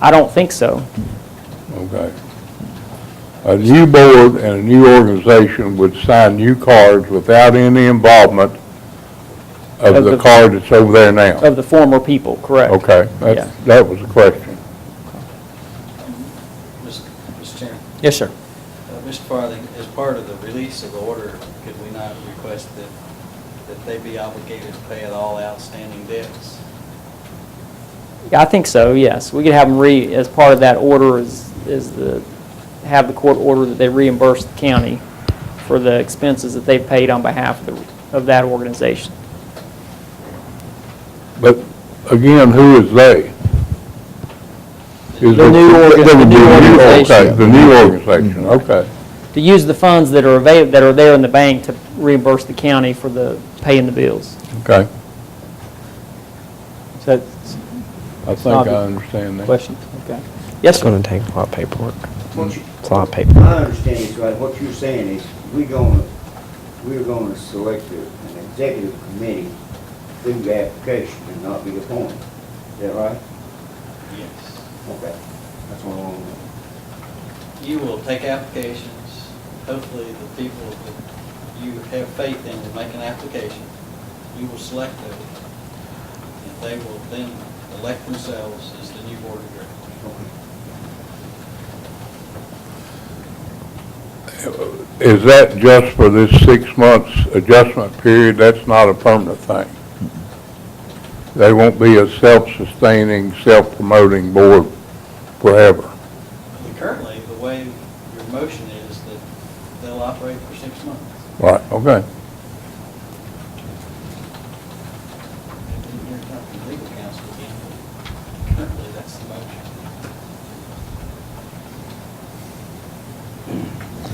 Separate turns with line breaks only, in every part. I don't think so.
Okay. A new board and a new organization would sign new cards without any involvement of
Of
the
the-
card that's over there now.
Of the former people, correct?
Okay,
Yeah.
that's, that was the question.
Mr. Chairman,
Yes, sir.
uh, Mr. Farthing, as part of the release of the order, could we not request that, that they be obligated to pay out all outstanding debts?
Yeah, I think so, yes. We could have them re, as part of that order is, is the, have the court order that they reimburse the county for the expenses that they've paid on behalf of the, of that organization.
But again, who is they? Is
The
it-
new organ-
that would
the
be
new
a
organization.
okay, The new organization, okay.
To use the funds that are available, that are there in the bank to reimburse the county for the, paying the bills.
Okay.
Is that the
I think I understand that.
question? Okay. Yes,
It's going
sir.
to take a lot of paperwork.
What you-
It's a lot of
My
paperwork.
understanding is right, what you're saying is, we're gonna, we're gonna select a- an executive committee through the application and not be appointed. Is that right?
Yes.
Okay, that's what I want to
You will take applications, hopefully the people that you have faith in will make an application. You will select those, and they will then elect themselves as the new board of directors.
know. Okay.
Is that just for this six months adjustment period? That's not a permanent thing. They won't be a self-sustaining, self-promoting board forever.
Currently, the way your motion is that they'll operate for six months.
Right, okay.
You're talking legal counsel again, but currently, that's the motion.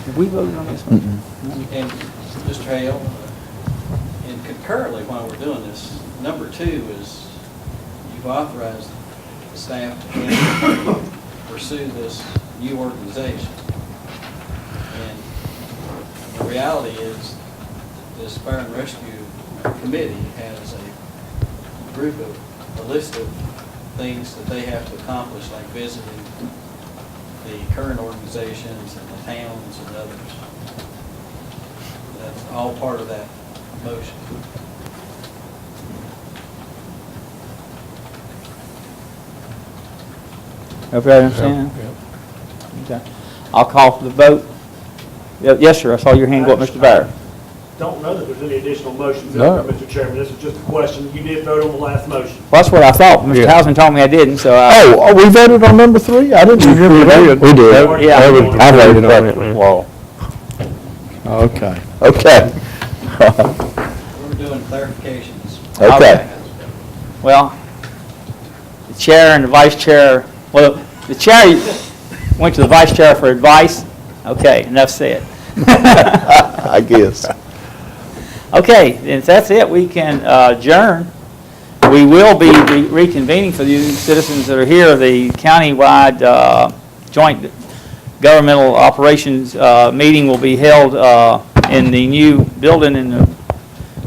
Did we vote on this one?
And Mr. Hale, uh, and concurrently, while we're doing this, number two is you've authorized the staff to handle, pursue this new organization. And the reality is, this Fire and Rescue Committee has a group of, a list of things that they have to accomplish, like visiting the current organizations and the towns and others. That's all part of that motion.
Okay, I understand. Okay. I'll call for the vote. Ye- Yes, sir, I saw your hand go up, Mr. Byer.
Don't know that there's any additional motions,
No.
out there, Mr. Chairman. This is just a question. You did vote on the last motion.
Well, that's what I thought. Mr.
Yeah.
Hausman told me I didn't, so I,
Oh, we voted on number three? I didn't remember that.
We did.
That-
Yeah.
that was the
I voted on it, man.
Law.
Okay.
Okay.
We're doing clarifications.
Okay. well, the chair and the vice chair, well, the chair went to the vice chair for advice. Okay, enough said.
I guess.
Okay, then if that's it, we can uh, adjourn. We will be re- reconvening for the citizens that are here, the countywide uh, joint governmental operations uh, meeting will be held uh, in the new building in the